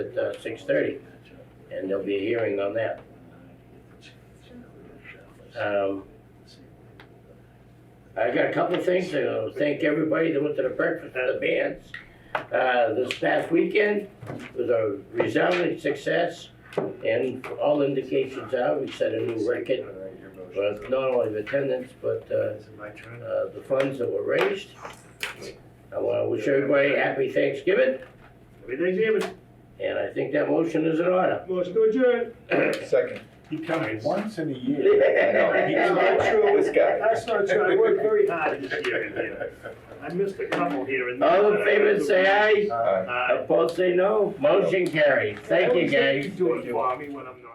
at uh, 6:30, and there'll be a hearing on that. Um, I got a couple of things to thank everybody that went to the breakfast at the bands. Uh, This past weekend was a resounding success, and all indications are, we set a new record, with not only the attendance, but uh, Is it my turn? uh, the funds that were raised. I want to wish everybody a happy Thanksgiving, Happy Thanksgiving. and I think that motion is in order. Motion to adjourn. Second. He comes. Once in a I know, he's not true. This guy. That's not true, I worked very hard this year, in here. I missed a couple here and there. Uh, All in favor, say aye. Aye. Aye. Opposed, say no. Motion carried. Thank you, guys. Do it for me when I'm not.